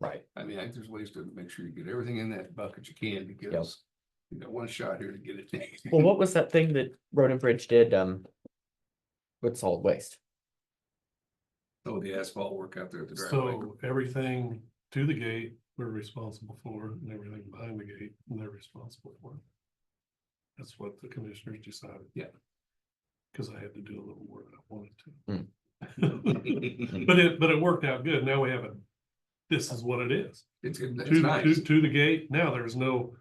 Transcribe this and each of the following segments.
Right. I mean, I think there's ways to make sure you get everything in that bucket you can because you got one shot here to get it. Well, what was that thing that Road and Bridge did, um, with solid waste? Oh, the asphalt work out there at the driveway. So everything to the gate, we're responsible for, and everything behind the gate, they're responsible for. That's what the commissioners decided. Yeah. Cause I had to do a little more than I Hmm. wanted to. But it, but it worked out good. Now we have a, this is what it is. It's, To, it's to, nice. to the gate, now there's no,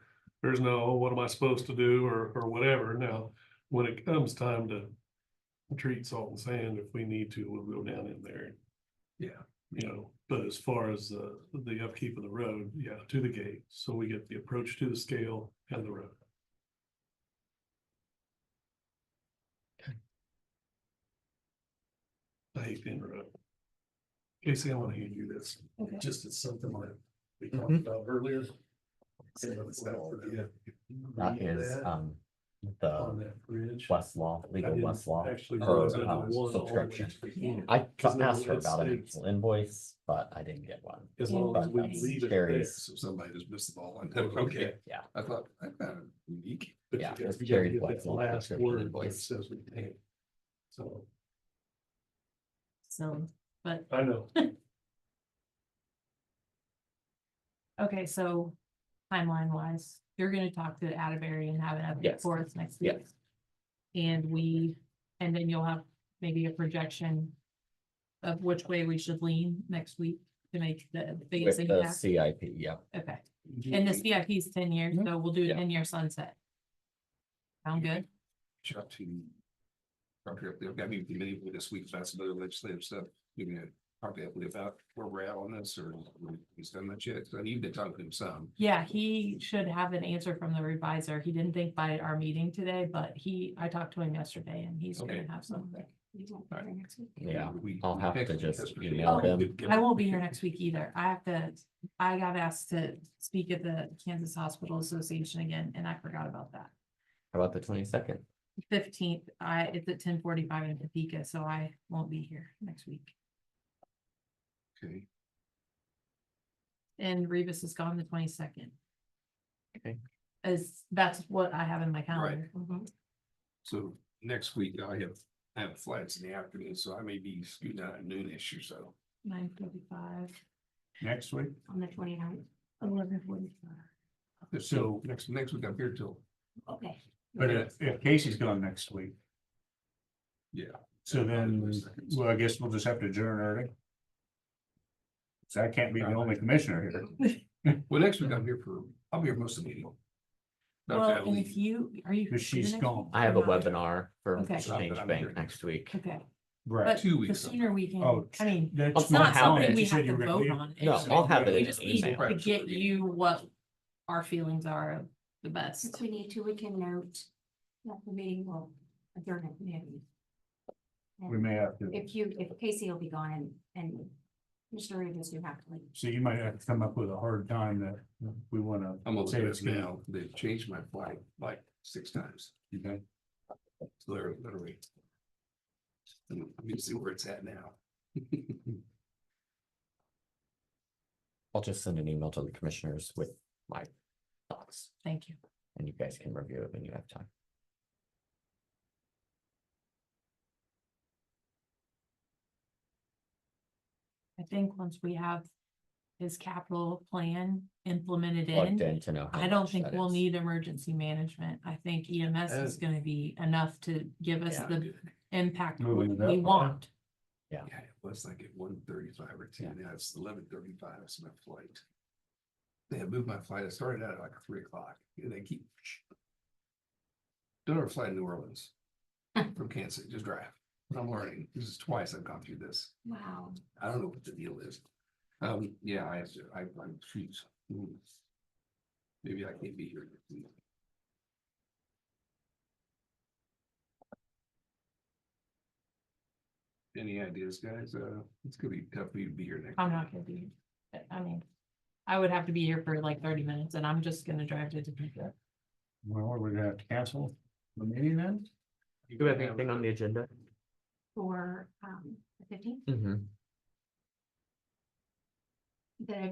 there's no, "Oh, what am I supposed to do or, or whatever. Now, when it comes time to treat salt and sand, if we need to, we'll go down in there and Yeah. you know, but as far as the, the upkeep of the road, yeah, to the gate, so we get the approach to the scale and the road. I hate to interrupt. Casey, I want to hand you this, Okay. just it's something that we talked Mhm. about earlier. That Yeah. That is, um, uh, On the that bridge. Westlaw, I legal didn't Westlaw. Actually. or, realize that uh, there was one subscription. all the way to the end. um, I Because then asked her it about an states- actual invoice, but I didn't get one. As long as we But that's leave it there. Gary's- So somebody just missed the ball on that. Okay. Yeah. I thought, I thought unique. But you Yeah, gotta- it's you gotta very get that flexible Last prescription word that invoice. says we pay. So, So, but, I know, okay, so timeline wise, you're gonna talk to Atterbury and have an update Yes. for us next week. And we, and then you'll have maybe a projection of which way we should lean next week to make the With biggest the impact. CIP, yeah. Okay, and this CIP is ten years, so we'll do a Mm-hmm. Yeah. ten year sunset. Sound good? Shot to. Probably up there, got me the meeting with this week, so that's another legislative stuff, you can probably update about where we're at on this, or he's done that yet, so I need to talk to him some. Yeah, he should have an answer from the revisor. He didn't think by our meeting today, but he, I talked to him yesterday and he's gonna Okay. have something. Yeah, We- I'll we have to text just yesterday. email Oh, them. we did get- I won't be here next week either. I have to, I got asked to speak at the Kansas Hospital Association again, and I forgot about that. How about the twenty-second? Fifteenth, I, it's at ten forty-five in Topeka, so I won't be here next week. Okay, And Revis is gone the twenty-second. Okay. Is, that's what I have in my calendar. Mm-hmm. so next week I have, I have flights in the afternoon, so I may be scooting out at noonish or so. Nine forty-five Next week? on the twenty-ninth, eleven forty-five. So next, next week I'm here till, Okay. But if, if Casey's gone next week, yeah. so then, Seconds. well, I guess we'll just have to adjourn early. So I can't be the only commissioner here. Well, next week I'm here for, I'll be here most of the meeting. Not that Well, and week. if you, are you? But she's next- gone. I have a Or not? webinar for Okay. Exchange I'm here. Bank next week. Okay, Right. but Two the weeks. sooner we can, Oh, I mean. That's It's my not something calendar. we She said have you to were vote leaving. on. No, It's- I'll have it We in just an need email. to get you what our feelings are of the best. If we need to, we can note that the meeting will adjourn at noon. We may have to, If you, if Casey will be gone and, and Mr. Reeves, you have to leave. so you might have to come up with a hard time that we wanna. I'm on say this it's gonna- now, they've changed my flight like six times, okay? Literally, literally. Let me- let me see where it's at now. I'll just send an email to the commissioners with my thoughts Thank you. and you guys can review it when you have time. I think once we have his capital plan implemented Plugged in, in to know. how I don't much think that we'll is. need emergency management. I think EMS is gonna be enough to give us Yeah, the impact we Moving it up, we yeah. want. Yeah, it was like at one thirty-five or Yeah. ten, now it's eleven thirty-five, it's my flight. They had moved my flight, it started out at like three o'clock, and they keep. Don't ever fly to New Orleans from Kansas, just drive, I'm learning, this is twice I've gone through this, Wow. I don't know what the deal is. Um, yeah, I, I, I'm, geez. Hmm. Maybe I can't be here. next week. Any ideas, guys? Uh, it's gonna be tough for you to be here next. I'm week. not gonna be, but, I mean, I would have to be here for like thirty minutes and I'm just gonna drive to Topeka. Well, we're gonna have to cancel the meeting then? Do we have anything on the agenda? For, um, the fifteenth, Mm-hmm. the